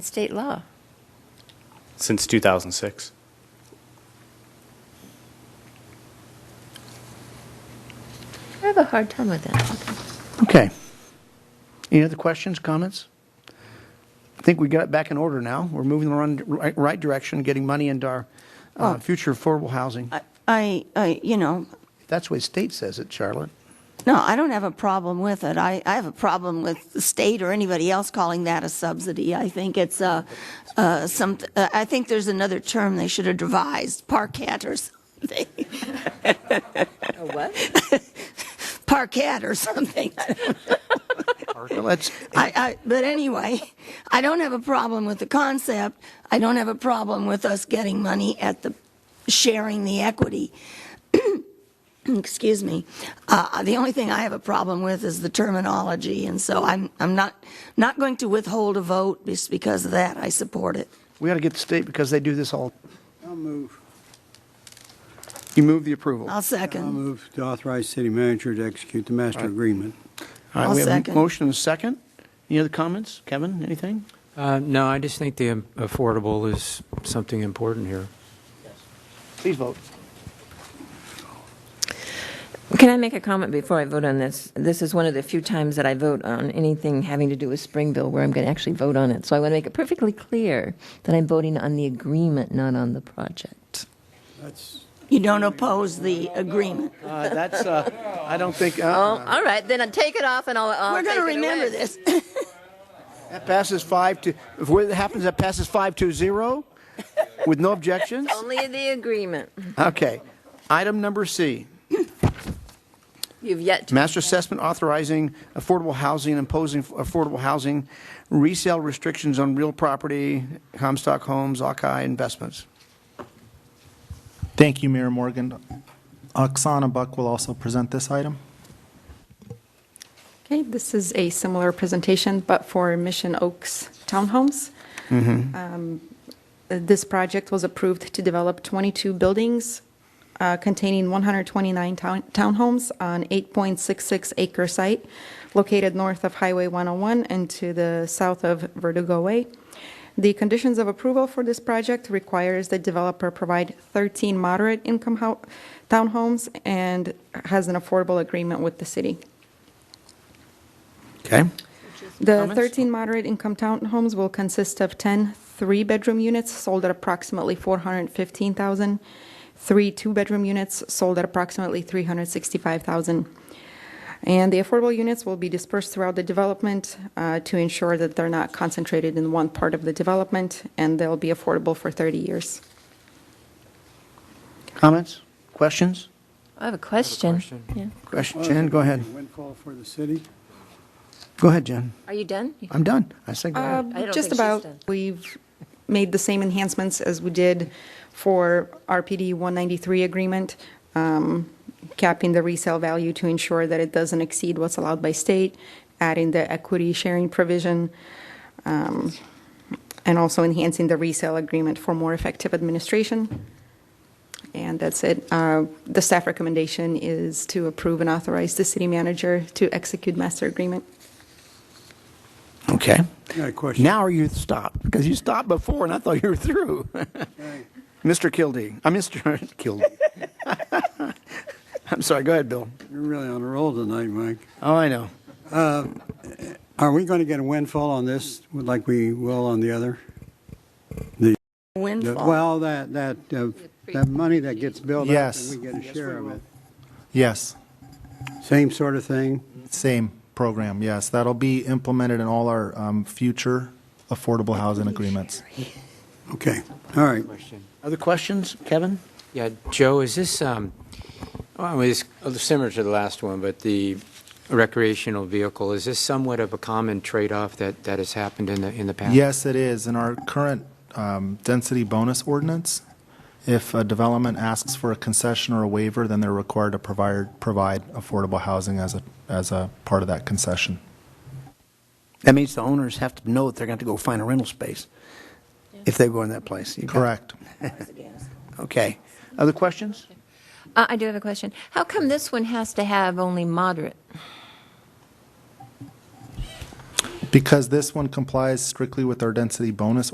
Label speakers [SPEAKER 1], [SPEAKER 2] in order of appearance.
[SPEAKER 1] state law.
[SPEAKER 2] since 2006.
[SPEAKER 1] I have a hard time with that.
[SPEAKER 3] Okay. Any other questions, comments? I think we got it back in order now. We're moving in the run- right- right direction, getting money into our uh, future affordable housing.
[SPEAKER 4] Oh. I- I, I, you know,
[SPEAKER 3] That's the way state says it, Charlotte.
[SPEAKER 4] no, I don't have a problem with it. I, I have a problem with the state or anybody else calling that a subsidy. I think it's a, uh, some, uh, I think there's another term they should have devised, parquet or something,
[SPEAKER 1] Oh, what?
[SPEAKER 4] parquet or something.
[SPEAKER 3] Well, Let's,
[SPEAKER 4] I, I, but anyway, I don't have a problem with the concept. I don't have a problem with us getting money at the, sharing the equity. Excuse me. Uh, the only thing I have a problem with is the terminology, and so I'm, I'm not, not going to withhold a vote just because of that. I support it.
[SPEAKER 3] we got to get the state because they do this all,
[SPEAKER 5] I'll move,
[SPEAKER 3] you move the approval.
[SPEAKER 4] I'll
[SPEAKER 5] I'll
[SPEAKER 4] second.
[SPEAKER 5] move to authorize city manager to execute the master agreement.
[SPEAKER 3] All right,
[SPEAKER 4] I'll
[SPEAKER 3] we have a
[SPEAKER 4] second.
[SPEAKER 3] Motion and a second. Any other comments? Kevin, anything?
[SPEAKER 6] Uh, No, I just think the um, affordable is something important here.
[SPEAKER 3] Please vote.
[SPEAKER 7] Can I make a comment before I vote on this? This is one of the few times that I vote on anything having to do with Springville where I'm going to actually vote on it. So I want to make it perfectly clear that I'm voting on the agreement, not on the project.
[SPEAKER 5] That's,
[SPEAKER 4] You don't oppose the agreement.
[SPEAKER 3] Uh, That's, uh, I don't think, uh,
[SPEAKER 7] Oh, all right, then I'll take it off and I'll, I'll
[SPEAKER 4] We're
[SPEAKER 7] take
[SPEAKER 4] going to
[SPEAKER 7] it
[SPEAKER 4] remember
[SPEAKER 7] away.
[SPEAKER 4] this.
[SPEAKER 3] that passes five to, if it happens, that passes five to zero with no objections.
[SPEAKER 7] Only the agreement.
[SPEAKER 3] Okay. Item number C.
[SPEAKER 7] You've yet to.
[SPEAKER 3] Master assessment authorizing affordable housing, imposing affordable housing, resale restrictions on real property, Comstock Homes, Akai Investments.
[SPEAKER 8] Thank you, Mayor Morgan. Oksana Buck will also present this item.
[SPEAKER 9] Okay, this is a similar presentation, but for Mission Oaks Townhomes. Um, This project was approved to develop 22 buildings uh, containing 129 town- townhomes on 8.66 acre site located north of Highway 101 and to the south of Verdugo Way. The conditions of approval for this project requires the developer provide 13 moderate income hou- townhomes and has an affordable agreement with the city.
[SPEAKER 3] Okay.
[SPEAKER 9] The
[SPEAKER 3] Comments?
[SPEAKER 9] 13 moderate income townhomes will consist of 10 three-bedroom units sold at approximately 415,000, three two-bedroom units sold at approximately 365,000. And the affordable units will be dispersed throughout the development uh, to ensure that they're not concentrated in one part of the development, and they'll be affordable for 30 years.
[SPEAKER 3] Comments? Questions?
[SPEAKER 7] I have a question.
[SPEAKER 6] question.
[SPEAKER 7] Yeah.
[SPEAKER 3] Question, Jen, go ahead.
[SPEAKER 5] Windfall for the city.
[SPEAKER 3] Go ahead, Jen.
[SPEAKER 7] Are you done?
[SPEAKER 3] I'm done. I said, go ahead.
[SPEAKER 7] I don't think
[SPEAKER 9] Um, Just
[SPEAKER 7] she's
[SPEAKER 9] about,
[SPEAKER 7] done.
[SPEAKER 9] we've made the same enhancements as we did for RPD 193 agreement, um, capping the resale value to ensure that it doesn't exceed what's allowed by state, adding the equity sharing provision, um, and also enhancing the resale agreement for more effective administration. And that's it. Uh, The staff recommendation is to approve and authorize the city manager to execute master agreement.
[SPEAKER 3] Okay.
[SPEAKER 5] I got a question.
[SPEAKER 3] Now are you stopped? Because you stopped before and I thought you were through. Mr. Kildee, I'm Mr. Kildee. I'm sorry, go ahead, Bill.
[SPEAKER 5] You're really on a roll tonight, Mike.
[SPEAKER 3] Oh, I know.
[SPEAKER 5] Are we going to get a windfall on this like we will on the other? The-
[SPEAKER 4] Windfall.
[SPEAKER 5] Well, that, that, uh, that money that gets built up.
[SPEAKER 8] Yes.
[SPEAKER 5] And we get a share of it.
[SPEAKER 8] Yes,
[SPEAKER 5] Same sort of thing.
[SPEAKER 8] same program, yes. That'll be implemented in all our um, future affordable housing agreements.
[SPEAKER 5] Okay, all right.
[SPEAKER 3] Other questions, Kevin?
[SPEAKER 6] Yeah, Joe, is this, um, well, it's similar to the last one, but the recreational vehicle, is this somewhat of a common trade-off that, that has happened in the, in the past?
[SPEAKER 8] Yes, it is. In our current um, density bonus ordinance, if a development asks for a concession or a waiver, then they're required to provide, provide affordable housing as a, as a part of that concession.
[SPEAKER 3] That means the owners have to know that they're going to go find a rental space if they go in that place. You got it.
[SPEAKER 8] Correct.
[SPEAKER 3] Okay. Other questions?
[SPEAKER 7] Uh, I do have a question. How come this one has to have only moderate?
[SPEAKER 8] Because this one complies strictly with our density bonus